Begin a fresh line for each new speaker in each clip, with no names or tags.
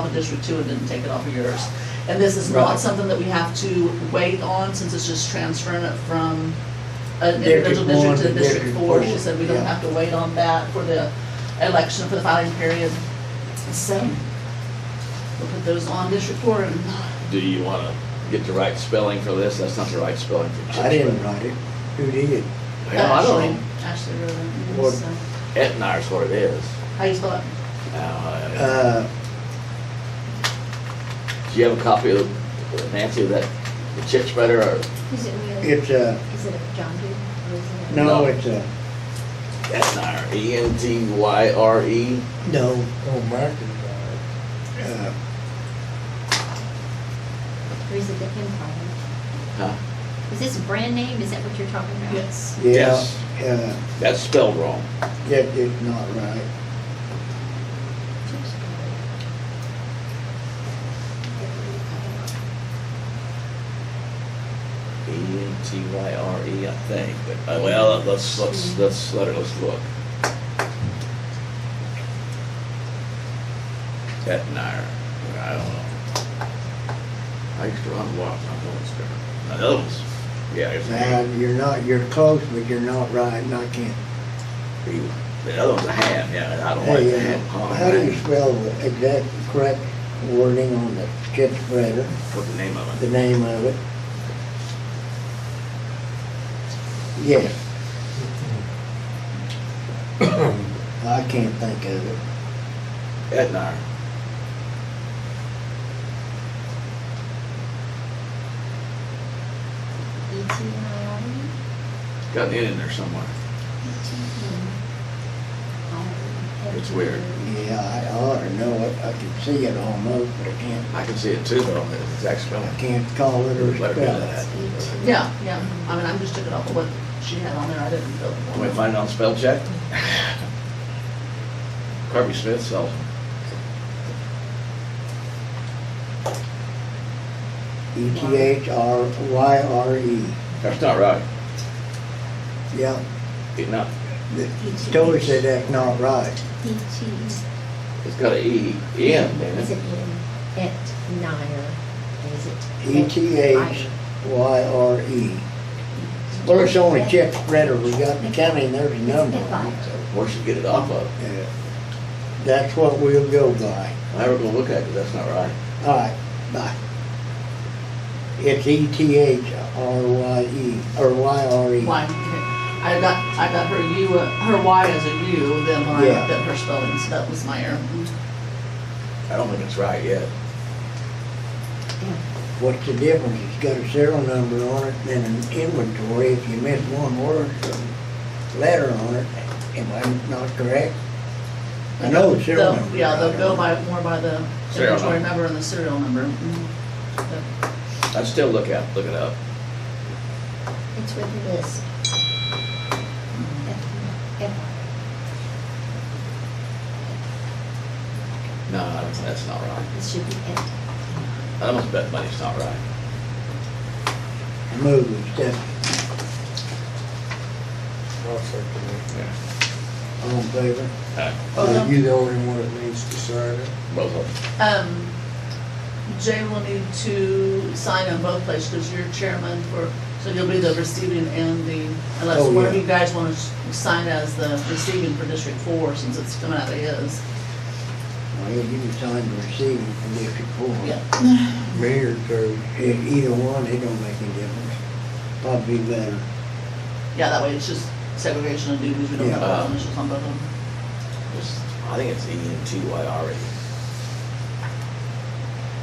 off of District Two and didn't take it off of yours. And this is
Right.
not something that we have to wait on, since it's just transferring it from an
District
individual district
one
to
to
District
District
Four. She
four,
said we don't
yeah.
have to wait on that for the election, for the filing period. So, we'll put those on District Four and
Do you want to get the right spelling for this? That's not the right spelling for
I
Chichester.
didn't write it. Who did?
Well, I
Ashley,
don't know.
Ashley Rowland,
What-
so,
Etnire's what it is.
uh, how you spell it?
Now,
Uh,
uh, Do you have a copy of, Nancy, of that, the chit spreader or
Is it really?
it's a,
Is it a John Deere or is it? a-
no, it's uh, a,
Etnire? E N T Y R E?
no,
Oh, Macintyre.
uh,
Or is it the Empire?
Huh?
Is this a brand name? Is that what you're talking about?
Yes.
yeah,
Yes.
uh,
That's spelled wrong.
that is not right.
E
E N T Y R E, I think. But, uh, well, let's, let's, let's, let her, let's look. Etnire, I don't know. I used to run lots, I know it's there. Now, those, yeah, it's.
Now, you're not, you're close, but you're not right, and I can't.
The other one's a ham, yeah, and I don't like
Hey,
the
uh,
ham. Oh,
how do you
man.
spell the exact correct wording on the skid spreader,
What's the name of
the
it?
name of it? Yes. I can't think of it.
Etnire.
E T N I R E?
Got an N in there somewhere.
E T N I R E.
It's weird.
Yeah, I ought to know it. I can see it almost, but I can't,
I can see it too, though, it's exact
I
spelling.
can't call it or
Let her do
spell
that.
it.
Yeah, yeah, I mean, I'm just took it off of what she had on there, I didn't build it.
Can we find it on spell check? Kirby Smith sells them.
E T H R Y R E.
That's not right.
Yeah,
It not,
the story said that's not right.
E T,
it's got a E, N, is
is it
it?
in, et Nire? Is it?
E T H Y R E. Well, it's only chip spreader we got in the county and there's a number on it, so,
Where should get it off of?
yeah. That's what we'll go by.
I never gonna look at it, 'cause that's not right.
All right, bye. It's E T H R Y E, or Y R E.
Y. I got, I got her U, uh, her Y as a U, then when I
Yeah.
looked at her spelling, so that was my error.
I don't think it's right yet.
What's the difference? It's got a serial number on it and an inventory. If you miss one word, or letter on it, am I not correct? I know the serial
They'll-
number.
Yeah, they'll go by, more by the
Serial
inventory
number. Mm-hmm.
number and the serial number. Mhm. But
I'd still look at, look it up.
It's with this. Et- et-
No, I don't- that's not right.
It should be et.
I almost bet money's not right.
Move it, step,
I'll second it.
all in favor?
Alright,
Oh,
Are
no.
you the only one that needs to sign it?
Both of them.
Um, Jay will need to sign on both places, because you're chairman for, so you'll be the receiving and the, unless
Oh,
one of
yeah.
you guys want to sign as the receiving for District Four, since it's coming out of his.
Well, you can sign the receiving from District Four.
Yeah.
Me or Cody?
E- Either one, it don't make any difference. Probably better.
Yeah, that way it's just segregation of duties, we don't have
Yeah.
our initials on both of them.
It's- I think it's E N T Y R E.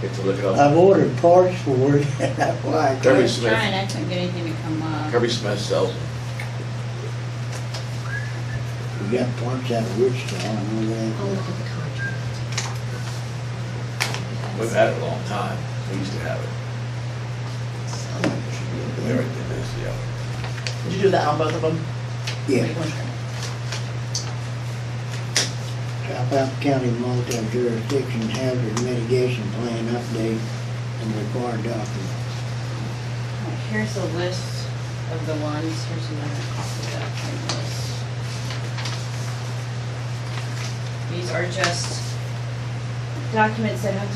Get to
Oh.
look it up.
I've ordered parts for it, that's why. I
Kirby
can't-
Smith. I couldn't get anything to come up. Kirby Smith sells them.
We got parts out of Wichita, I know
I'll
that.
look at the contract.
We've had it a long time. We used to have it. We already did this, yeah.
Did you do that on both of them?
Yeah, South County multi-jurisdiction hazard mitigation plan update and required document.
Here's a list of the ones, here's another copy of that same list. These are just documents that have to